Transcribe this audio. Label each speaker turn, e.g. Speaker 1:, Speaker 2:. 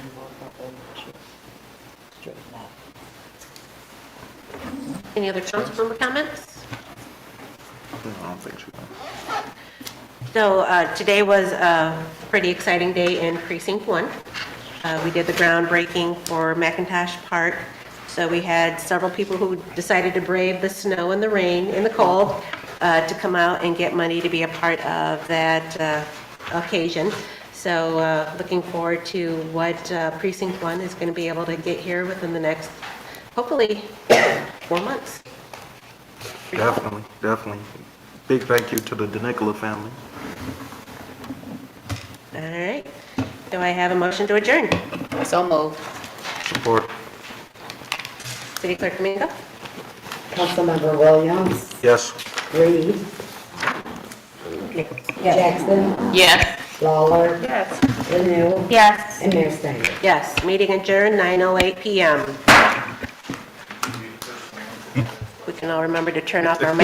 Speaker 1: Straighten out.
Speaker 2: Any other council member comments?
Speaker 3: I don't think so.
Speaker 2: So uh, today was a pretty exciting day in Precinct 1. Uh, We did the groundbreaking for McIntosh Park, so we had several people who decided to brave the snow and the rain and the cold uh, to come out and get money to be a part of that uh, occasion. So uh, looking forward to what uh, Precinct 1 is going to be able to get here within the next, hopefully, four months.
Speaker 3: Definitely, definitely. Big thank you to the DeNicola family.
Speaker 2: All right. Do I have a motion to adjourn?
Speaker 1: So moved.
Speaker 3: Support.
Speaker 2: City Clerk Domingo?
Speaker 4: Councilmember Williams,
Speaker 3: Yes.
Speaker 4: Reed, Jackson,
Speaker 1: Yes.
Speaker 4: Lawler,
Speaker 2: Yes.
Speaker 4: Lanu,
Speaker 2: Yes.
Speaker 4: and Mayor Snyder.
Speaker 2: Yes, meeting adjourned, 9:08 PM. We can all remember to turn off our